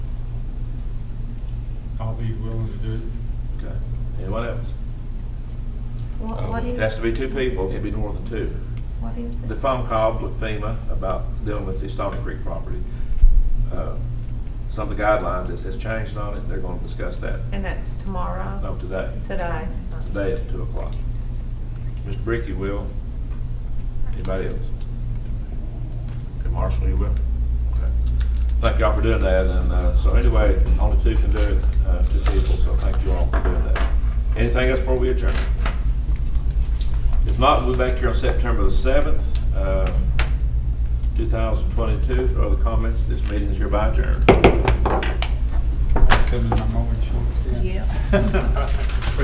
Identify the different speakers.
Speaker 1: be willing to do it.
Speaker 2: Okay. Anyone else?
Speaker 3: What, what
Speaker 2: Uh, It
Speaker 3: is?
Speaker 2: has to be two people, it can be more than two.
Speaker 3: What is it?
Speaker 2: The phone call with FEMA about dealing with the Stony Creek property, uh, some of the guidelines that has changed on it, they're gonna discuss that,
Speaker 3: And that's tomorrow?
Speaker 2: no, today,
Speaker 3: You said I.
Speaker 2: today at two o'clock. Mr. Brick, you will. Anybody else? And Marshall, you will? Okay. Thank y'all for doing that, and, uh, so anyway, only two can do it, uh, two people, so thank you all for doing that. Anything else before we adjourn? If not, we'll be back here on September the seventh, uh, two thousand twenty-two. For other comments, this meeting is hereby adjourned.
Speaker 1: Coming, I'm always short.
Speaker 3: Yeah.